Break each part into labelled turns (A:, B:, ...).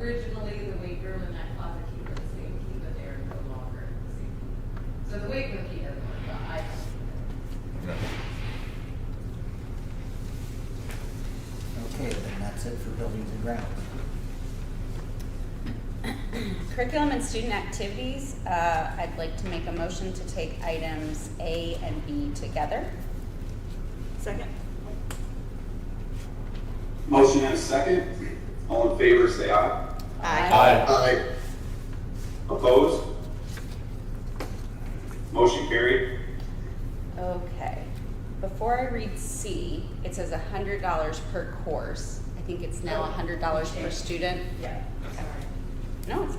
A: originally, the weight room and that closet key were the same key, but they're no longer the same key. So the weight room key doesn't work, but I don't.
B: No.
C: Okay, then that's it for buildings and grounds.
D: Curriculum and student activities, uh, I'd like to make a motion to take items A and B together.
E: Second?
F: Motion and a second. All in favor, say aye. Aye. Opposed? Motion carried.
D: Okay, before I read C, it says a hundred dollars per course. I think it's now a hundred dollars per student.
A: Yeah, sorry.
D: No, it's.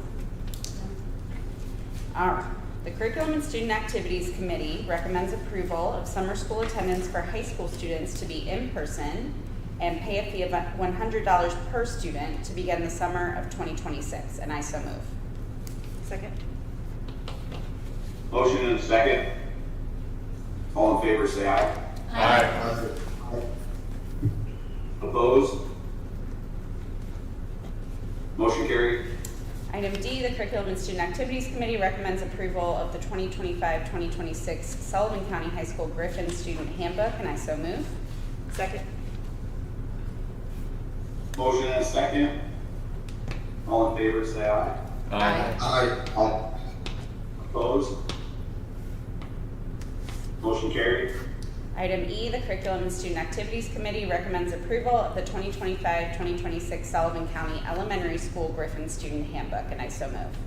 D: All right. The Curriculum and Student Activities Committee recommends approval of summer school attendance for high school students to be in person and pay a fee of one hundred dollars per student to begin the summer of twenty twenty-six, and I so move.
E: Second?
F: Motion and a second. All in favor, say aye. Aye. Opposed? Motion carried.
D: Item D, the Curriculum and Student Activities Committee recommends approval of the 2025-2026 Sullivan County High School Griffin Student Handbook, and I so move.
E: Second?
F: Motion and a second. All in favor, say aye.
B: Aye.
F: Aye. Opposed? Motion carried.
D: Item E, the Curriculum and Student Activities Committee recommends approval of the 2025-2026 Sullivan County Elementary School Griffin Student Handbook, and I so move.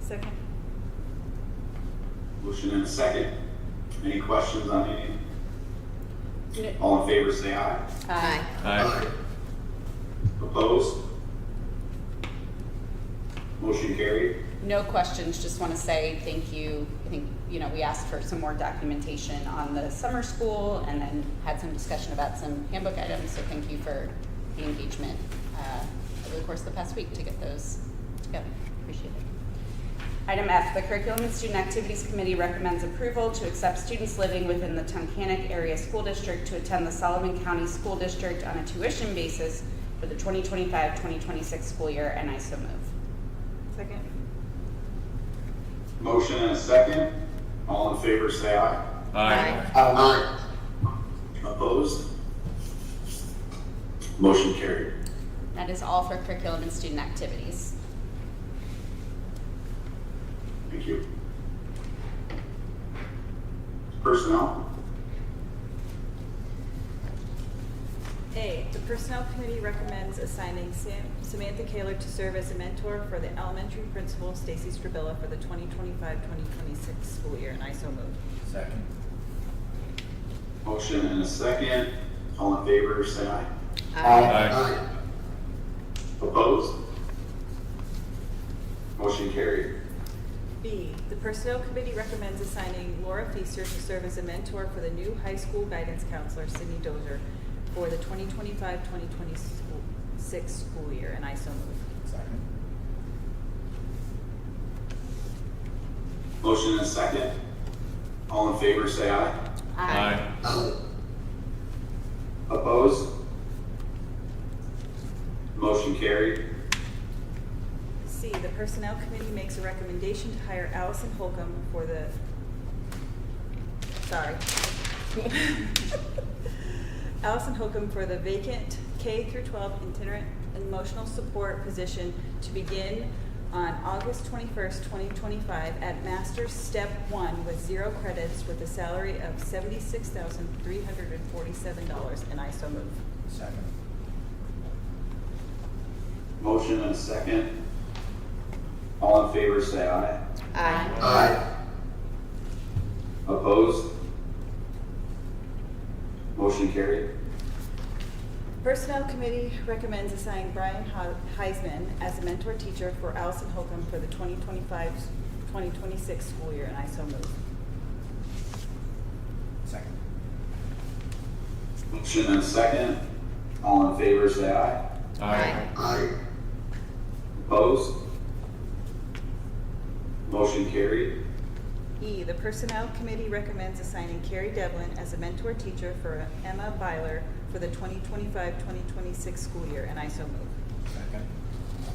E: Second?
F: Motion and a second. Any questions on any?
D: No.
F: All in favor, say aye.
D: Aye.
B: Aye.
F: Opposed? Motion carried.
D: No questions, just want to say thank you. I think, you know, we asked for some more documentation on the summer school and then had some discussion about some handbook items, so thank you for the engagement uh, over the course of the past week to get those together. Appreciate it. Item F, the Curriculum and Student Activities Committee recommends approval to accept students living within the Tunkhannock Area School District to attend the Solomon County School District on a tuition basis for the 2025-2026 school year, and I so move.
E: Second?
F: Motion and a second. All in favor, say aye.
B: Aye.
F: Aye. Opposed? Motion carried.
D: That is all for curriculum and student activities.
F: Thank you. Personnel?
E: A, the Personnel Committee recommends assigning Sam- Samantha Kaler to serve as a mentor for the elementary principal Stacy Strabilla for the 2025-2026 school year, and I so move.
C: Second.
F: Motion and a second. All in favor, say aye.
B: Aye.
F: Opposed? Motion carried.
E: B, the Personnel Committee recommends assigning Laura Feaster to serve as a mentor for the new high school guidance counselor Sydney Dozer for the 2025-2026 school year, and I so move.
C: Second.
F: Motion and a second. All in favor, say aye.
B: Aye.
F: Opposed? Motion carried.
E: C, the Personnel Committee makes a recommendation to hire Allison Holcomb for the, sorry. Allison Holcomb for the vacant K through 12 itinerant emotional support position to begin on August 21st, 2025 at Master's Step 1 with zero credits with a salary of $76,347, and I so move.
C: Second.
F: Motion and a second. All in favor, say aye.
D: Aye.
F: Aye. Opposed? Motion carried.
E: Personnel Committee recommends assigning Brian Ho- Heisman as a mentor teacher for Allison Holcomb for the 2025-2026 school year, and I so move.
C: Second.
F: Motion and a second. All in favor, say aye.
B: Aye.
F: Aye. Opposed? Motion carried.
E: E, the Personnel Committee recommends assigning Carrie Devlin as a mentor teacher for Emma Byler for the 2025-2026 school year, and I so move.
C: Second.